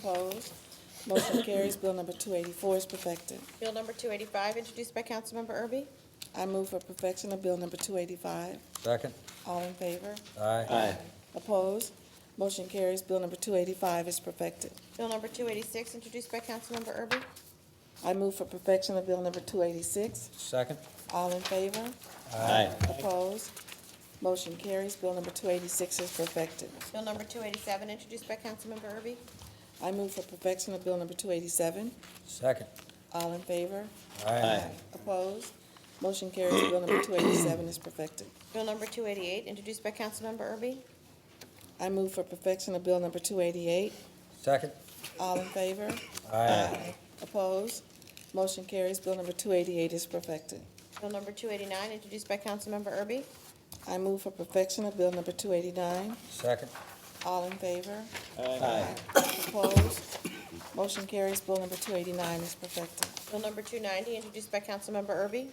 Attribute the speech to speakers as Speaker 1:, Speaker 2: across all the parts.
Speaker 1: Opposed? Motion carries. Bill number 284 is perfected.
Speaker 2: Bill number 285, introduced by Councilmember Erby.
Speaker 1: I move for perfection of Bill number 285.
Speaker 3: Second.
Speaker 1: All in favor?
Speaker 3: Aye.
Speaker 1: Opposed? Motion carries. Bill number 285 is perfected.
Speaker 2: Bill number 286, introduced by Councilmember Erby.
Speaker 1: I move for perfection of Bill number 286.
Speaker 3: Second.
Speaker 1: All in favor?
Speaker 3: Aye.
Speaker 1: Opposed? Motion carries. Bill number 286 is perfected.
Speaker 2: Bill number 287, introduced by Councilmember Erby.
Speaker 1: I move for perfection of Bill number 287.
Speaker 3: Second.
Speaker 1: All in favor?
Speaker 3: Aye.
Speaker 1: Opposed? Motion carries. Bill number 287 is perfected.
Speaker 2: Bill number 288, introduced by Councilmember Erby.
Speaker 1: I move for perfection of Bill number 288.
Speaker 3: Second.
Speaker 1: All in favor?
Speaker 3: Aye.
Speaker 1: Opposed? Motion carries. Bill number 288 is perfected.
Speaker 2: Bill number 289, introduced by Councilmember Erby.
Speaker 1: I move for perfection of Bill number 289.
Speaker 3: Second.
Speaker 1: All in favor?
Speaker 3: Aye.
Speaker 1: Opposed? Motion carries. Bill number 289 is perfected.
Speaker 2: Bill number 290, introduced by Councilmember Erby.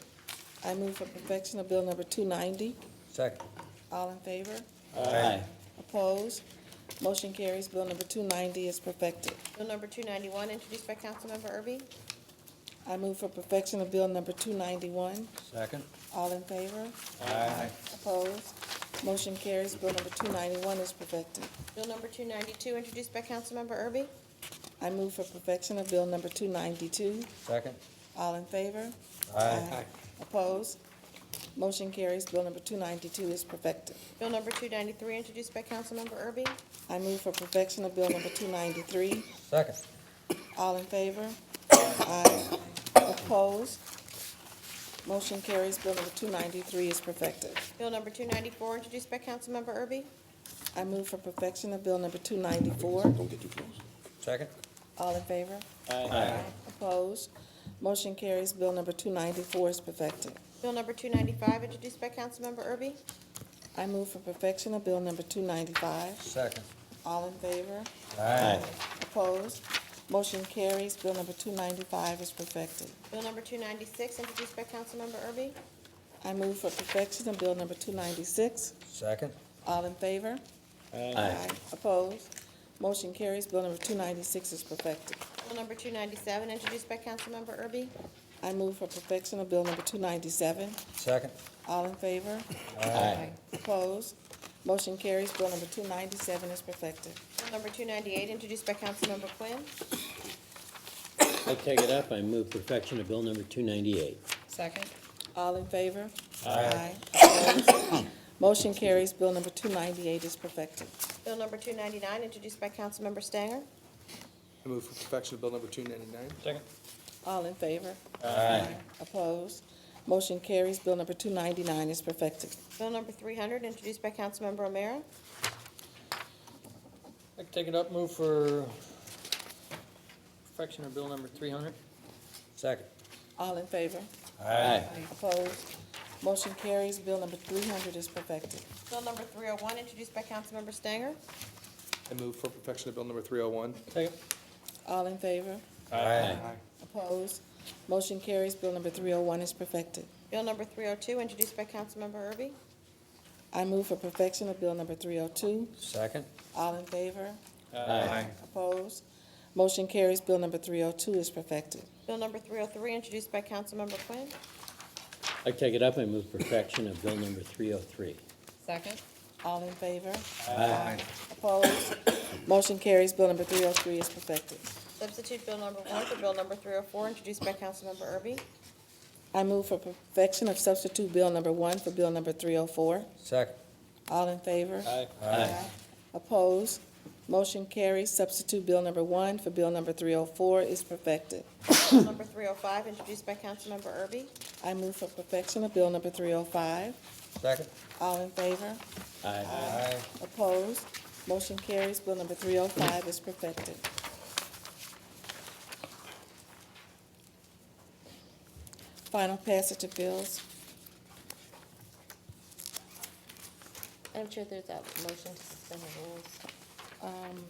Speaker 1: I move for perfection of Bill number 290.
Speaker 3: Second.
Speaker 1: All in favor?
Speaker 3: Aye.
Speaker 1: Opposed? Motion carries. Bill number 290 is perfected.
Speaker 2: Bill number 291, introduced by Councilmember Erby.
Speaker 1: I move for perfection of Bill number 291.
Speaker 3: Second.
Speaker 1: All in favor?
Speaker 3: Aye.
Speaker 1: Opposed? Motion carries. Bill number 291 is perfected.
Speaker 2: Bill number 292, introduced by Councilmember Erby.
Speaker 1: I move for perfection of Bill number 292.
Speaker 3: Second.
Speaker 1: All in favor?
Speaker 3: Aye.
Speaker 1: Opposed? Motion carries. Bill number 292 is perfected.
Speaker 2: Bill number 293, introduced by Councilmember Erby.
Speaker 1: I move for perfection of Bill number 293.
Speaker 3: Second.
Speaker 1: All in favor? Aye. Opposed? Motion carries. Bill number 293 is perfected.
Speaker 2: Bill number 294, introduced by Councilmember Erby.
Speaker 1: I move for perfection of Bill number 294.
Speaker 3: Second.
Speaker 1: All in favor?
Speaker 3: Aye.
Speaker 1: Opposed? Motion carries. Bill number 294 is perfected.
Speaker 2: Bill number 295, introduced by Councilmember Erby.
Speaker 1: I move for perfection of Bill number 295.
Speaker 3: Second.
Speaker 1: All in favor?
Speaker 3: Aye.
Speaker 1: Opposed? Motion carries. Bill number 295 is perfected.
Speaker 2: Bill number 296, introduced by Councilmember Erby.
Speaker 1: I move for perfection of Bill number 296.
Speaker 3: Second.
Speaker 1: All in favor? Aye. Opposed? Motion carries. Bill number 296 is perfected.
Speaker 2: Bill number 297, introduced by Councilmember Erby.
Speaker 1: I move for perfection of Bill number 297.
Speaker 3: Second.
Speaker 1: All in favor?
Speaker 3: Aye.
Speaker 1: Opposed? Motion carries. Bill number 297 is perfected.
Speaker 2: Bill number 298, introduced by Councilmember Quinn.
Speaker 4: I take it up, I move perfection of bill number two ninety-eight.
Speaker 1: Second. All in favor?
Speaker 3: Aye.
Speaker 1: Opposed? Motion carries. Bill number 298 is perfected.
Speaker 2: Bill number 299, introduced by Councilmember Stanger.
Speaker 5: I move for perfection of Bill number 299.
Speaker 3: Second.
Speaker 1: All in favor?
Speaker 3: Aye.
Speaker 1: Opposed? Motion carries. Bill number 299 is perfected.
Speaker 2: Bill number 300, introduced by Councilmember O'Meara.
Speaker 6: I can take it up, move for perfection of bill number three hundred.
Speaker 3: Second.
Speaker 1: All in favor?
Speaker 3: Aye.
Speaker 1: Opposed? Motion carries. Bill number 300 is perfected.
Speaker 2: Bill number 301, introduced by Councilmember Stanger.
Speaker 5: I move for perfection of Bill number 301.
Speaker 6: Take it,
Speaker 1: All in favor?
Speaker 3: Aye.
Speaker 1: Opposed? Motion carries. Bill number 301 is perfected.
Speaker 2: Bill number 302, introduced by Councilmember Erby.
Speaker 1: I move for perfection of Bill number 302.
Speaker 3: Second.
Speaker 1: All in favor?
Speaker 3: Aye.
Speaker 1: Opposed? Motion carries. Bill number 302 is perfected.
Speaker 2: Bill number 303, introduced by Councilmember Quinn.
Speaker 4: I take it up, I move perfection of bill number three oh three.
Speaker 2: Second.
Speaker 1: All in favor? Opposed? Motion carries. Bill number 303 is perfected.
Speaker 2: Substitute Bill number 1 for Bill number 304, introduced by Councilmember Erby.
Speaker 1: I move for perfection of substitute Bill number 1 for Bill number 304.
Speaker 3: Second.
Speaker 1: All in favor?
Speaker 6: aye,
Speaker 3: Aye.
Speaker 1: Opposed? Motion carries. Substitute Bill number 1 for Bill number 304 is perfected.
Speaker 2: Bill number 305, introduced by Councilmember Erby.
Speaker 1: I move for perfection of Bill number 305.
Speaker 3: Second.
Speaker 1: All in favor?
Speaker 4: Aye.
Speaker 3: Aye.
Speaker 1: Opposed? Motion carries. Bill number 305 is perfected. Final passage of bills.
Speaker 7: Madam Chair, there's a motion to suspend the rules.
Speaker 1: Um,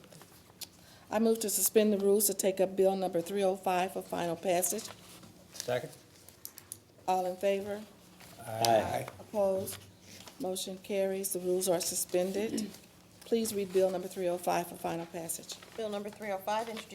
Speaker 1: I move to suspend the rules to take up Bill number 305 for final passage.
Speaker 3: Second.
Speaker 1: All in favor?
Speaker 4: Aye.
Speaker 1: Opposed? Motion carries. The rules are suspended. Please read Bill number 305 for final passage.
Speaker 2: Bill number 305, introduced